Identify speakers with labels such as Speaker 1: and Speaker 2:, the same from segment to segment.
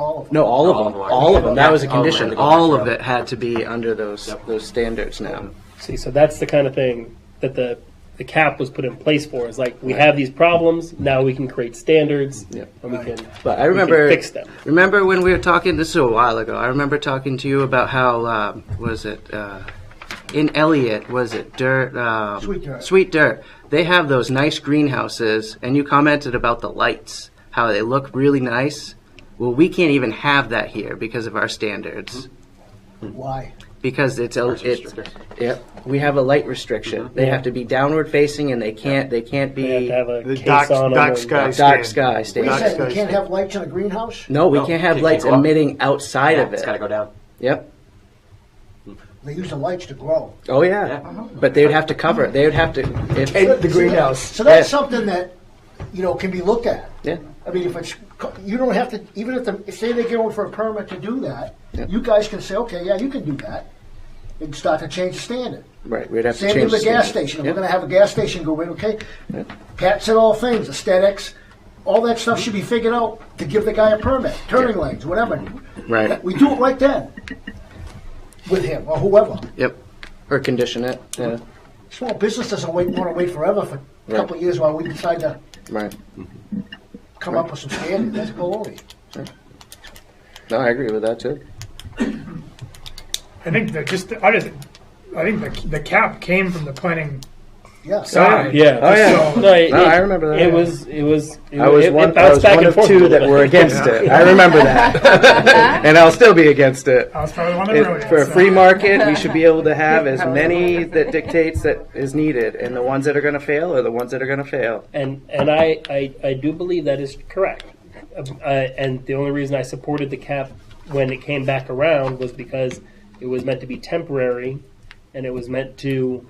Speaker 1: all of them.
Speaker 2: No, all
Speaker 3: All
Speaker 2: of
Speaker 3: of
Speaker 2: them,
Speaker 3: them.
Speaker 2: all of them. That was a
Speaker 3: Yeah, all of them
Speaker 2: condition.
Speaker 3: had to go back
Speaker 2: All
Speaker 3: to
Speaker 2: of
Speaker 3: that.
Speaker 2: it had to be under those, those standards now.
Speaker 1: See, so that's the kind of thing that the, the cap was put in place for, is like, we have these problems, now we can create standards,
Speaker 2: Yep.
Speaker 1: and we can.
Speaker 2: But I
Speaker 1: we can
Speaker 2: remember
Speaker 1: Fix them.
Speaker 2: Remember when we were talking? This is a while ago. I remember talking to you about how um, was it uh, in Elliott? Was it dirt? Um,
Speaker 4: Sweet Dirt.
Speaker 2: Sweet dirt. They have those nice greenhouses, and you commented about the lights, how they look really nice. Well, we can't even have that here because of our standards.
Speaker 4: Why?
Speaker 2: Because it's a, it's
Speaker 3: Mm-hmm. restricted.
Speaker 2: yep. We have a light restriction. They
Speaker 1: Yeah.
Speaker 2: have to be downward facing, and they can't. They can't be
Speaker 1: They have to have a
Speaker 5: The
Speaker 1: case
Speaker 5: dark-
Speaker 1: on them.
Speaker 5: dark
Speaker 1: and-
Speaker 5: sky.
Speaker 2: dark
Speaker 5: stand.
Speaker 2: sky
Speaker 4: What
Speaker 5: Dark
Speaker 4: are you saying?
Speaker 2: standards.
Speaker 5: sky
Speaker 4: You can't
Speaker 5: stand.
Speaker 4: have lights in a greenhouse?
Speaker 2: No, we
Speaker 3: No,
Speaker 2: can't have
Speaker 3: can't
Speaker 2: lights
Speaker 3: go up.
Speaker 2: emitting outside
Speaker 3: Yeah,
Speaker 2: of
Speaker 3: It's
Speaker 2: it.
Speaker 3: got to go down.
Speaker 2: Yep.
Speaker 4: They use the lights to grow.
Speaker 2: Oh yeah. But they would have to cover it. They would have to. If,
Speaker 4: But- so that- So that's
Speaker 2: Yeah.
Speaker 4: something that, you know, can be looked at.
Speaker 2: Yeah.
Speaker 4: I mean, if it's, co- you don't have to, even if the, if say they go in for a permit to do that,
Speaker 2: Yeah.
Speaker 4: you guys can say, okay, yeah, you can do that, and start to change the standard.
Speaker 2: Right. We'd have
Speaker 4: Same
Speaker 2: to
Speaker 4: thing
Speaker 2: change
Speaker 4: with a gas
Speaker 2: standards.
Speaker 4: station.
Speaker 2: Yeah.
Speaker 4: We're going to have a gas station go in, okay? Pat said all things, aesthetics, all that stuff should be figured out to give the guy a permit, turning lanes, whatever.
Speaker 2: Right.
Speaker 4: We do it right then with him or whoever.
Speaker 2: Yep. Or condition it. Yeah.
Speaker 4: Small business doesn't wait, want to wait forever for a couple of years while we decide to
Speaker 2: Right.
Speaker 4: come up with some standards. That's baloney.
Speaker 2: No, I agree with that too.
Speaker 6: I think that just, I just, I think the, the cap came from the planning
Speaker 4: Yeah.
Speaker 6: side.
Speaker 1: Yeah.
Speaker 2: Oh, yeah.
Speaker 6: So-
Speaker 1: No, it,
Speaker 2: No,
Speaker 1: it-
Speaker 2: I remember that.
Speaker 1: It was, it was, it,
Speaker 2: I was
Speaker 1: it,
Speaker 2: one.
Speaker 1: it
Speaker 2: I
Speaker 1: bounced
Speaker 2: was
Speaker 1: back
Speaker 2: one
Speaker 1: and
Speaker 2: of
Speaker 1: forth a
Speaker 2: two
Speaker 1: little
Speaker 2: that
Speaker 1: bit.
Speaker 2: were against it. I remember that, and I'll still be against it.
Speaker 6: I was probably one of the
Speaker 2: It-
Speaker 6: earliest,
Speaker 2: for a
Speaker 6: so-
Speaker 2: free market, we should be able to have as many that dictates that is needed, and the ones that are going to fail are the ones that are going to fail.
Speaker 1: And, and I, I, I do believe that is correct. Uh, and the only reason I supported the cap when it came back around was because it was meant to be temporary and it was meant to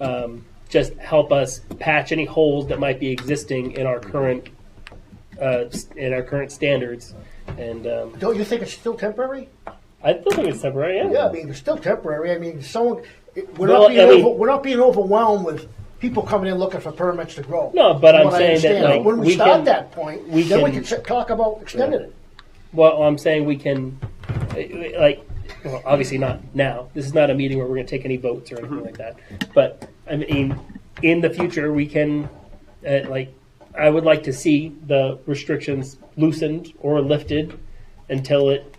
Speaker 1: um, just help us patch any holes that might be existing in our current uh, s- in our current standards. And um,
Speaker 4: Don't you think it's still temporary?
Speaker 1: I still think it's temporary. Yeah.
Speaker 4: Yeah, I mean, it's still temporary. I mean, someone, it- we're,
Speaker 1: Well,
Speaker 4: not being
Speaker 1: I mean-
Speaker 4: over, we're not being overwhelmed with people coming in looking for permits to grow.
Speaker 1: No, but
Speaker 4: From
Speaker 1: I'm
Speaker 4: what I
Speaker 1: saying that,
Speaker 4: understand.
Speaker 1: like,
Speaker 4: when we,
Speaker 1: we
Speaker 4: start
Speaker 1: can-
Speaker 4: that point,
Speaker 1: we
Speaker 4: then we
Speaker 1: can-
Speaker 4: can sit- talk about extending it.
Speaker 1: Well, I'm saying we can, uh, like, well, obviously not now. This is not a meeting where we're going to take any votes or anything like that. But I mean, in the future, we can, uh, like, I would like to see the restrictions loosened or lifted until it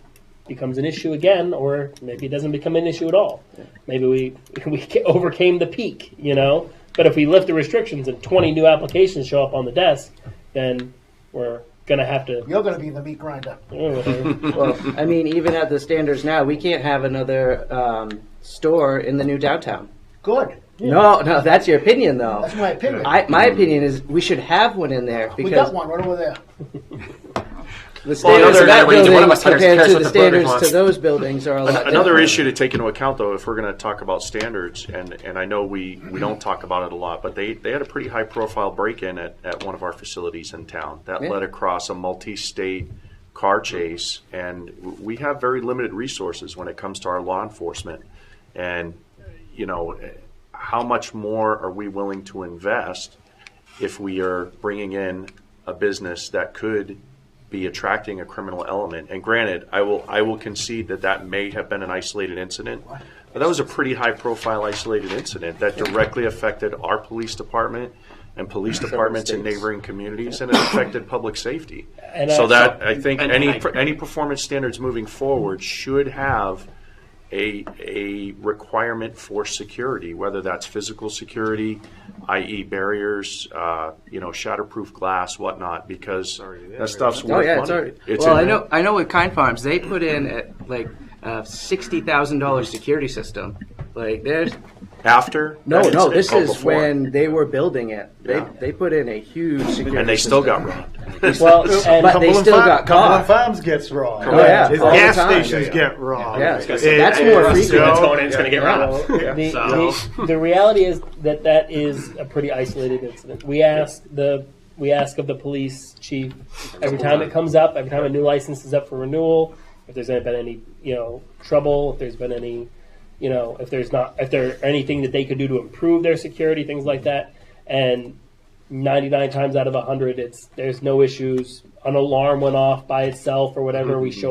Speaker 1: becomes an issue again, or maybe it doesn't become an issue at all. Maybe we we ca- overcame the peak, you know. But if we lift the restrictions and 20 new applications show up on the desk, then we're going to have to.
Speaker 4: You're going to be the meat grinder.
Speaker 1: Oh, whatever.
Speaker 2: Well, I mean, even at the standards now, we can't have another um, store in the new downtown.
Speaker 4: Good.
Speaker 2: No, no, that's your opinion, though.
Speaker 4: That's my opinion.
Speaker 2: I, my opinion is we should have one in there
Speaker 4: we got
Speaker 2: because
Speaker 4: one right over there.
Speaker 2: the
Speaker 3: Well,
Speaker 2: standards
Speaker 3: another
Speaker 2: of that
Speaker 3: matter, each one of
Speaker 2: building
Speaker 3: us cares-
Speaker 2: compared
Speaker 3: cares
Speaker 2: to
Speaker 3: what
Speaker 2: the
Speaker 3: the building
Speaker 2: standards to
Speaker 3: wants.
Speaker 2: those buildings are a lot.
Speaker 7: Another
Speaker 2: different.
Speaker 7: issue to take into account, though, if we're going to talk about standards, and, and I know we, we don't talk about it a lot, but they, they had a pretty high profile break in at, at one of our facilities in town that
Speaker 2: Yeah.
Speaker 7: led across a multi state car chase, and w- we have very limited resources when it comes to our law enforcement. And, you know, how much more are we willing to invest if we are bringing in a business that could be attracting a criminal element. And granted, I will I will concede that that may have been an isolated incident, but that was a pretty high profile isolated incident that directly affected our police department and police departments in
Speaker 2: states.
Speaker 7: neighboring communities, and it affected public safety.
Speaker 1: And I-
Speaker 7: so that I think
Speaker 3: And
Speaker 7: any
Speaker 3: I-
Speaker 7: pr- any performance standards moving forward should have a, a requirement for security, whether that's physical security, i.e. barriers, uh, you know, shatterproof glass, whatnot, because that stuff's
Speaker 2: Oh
Speaker 7: worth
Speaker 2: yeah, it's
Speaker 7: money.
Speaker 2: already.
Speaker 7: It's
Speaker 2: well,
Speaker 7: in
Speaker 2: I
Speaker 7: there.
Speaker 2: know. I know with Kind Farms, they put in at, like a sixty thousand dollars security system. Like there's
Speaker 7: After?
Speaker 2: no,
Speaker 7: that
Speaker 2: no.
Speaker 7: incident?
Speaker 2: This
Speaker 7: Oh,
Speaker 2: is
Speaker 7: before.
Speaker 2: when they were building it. They
Speaker 7: Yeah.
Speaker 2: they put in a huge security.
Speaker 7: And they still
Speaker 2: system.
Speaker 7: got robbed.
Speaker 1: Well, and
Speaker 2: But they
Speaker 5: Cumberland
Speaker 2: still
Speaker 5: Farm- Cumberland
Speaker 2: got caught.
Speaker 5: Farms gets robbed.
Speaker 2: Oh, yeah.
Speaker 5: His
Speaker 2: All the
Speaker 5: gas
Speaker 2: time.
Speaker 5: stations get robbed.
Speaker 2: Yeah,
Speaker 5: It
Speaker 2: that's
Speaker 5: is
Speaker 2: more
Speaker 5: so-
Speaker 2: frequent.
Speaker 3: Melatonin's going to get robbed.
Speaker 1: the,
Speaker 3: So-
Speaker 1: the, the reality is that that is a pretty isolated incident. We ask the we ask of the police chief every time it comes up, every time a new license is up for renewal, if there's been any you know trouble, if there's been any you know if there's not if there anything that they could do to improve their security, things like that, and 99 times out of 100 it's there's no issues an alarm went off by itself or whatever we show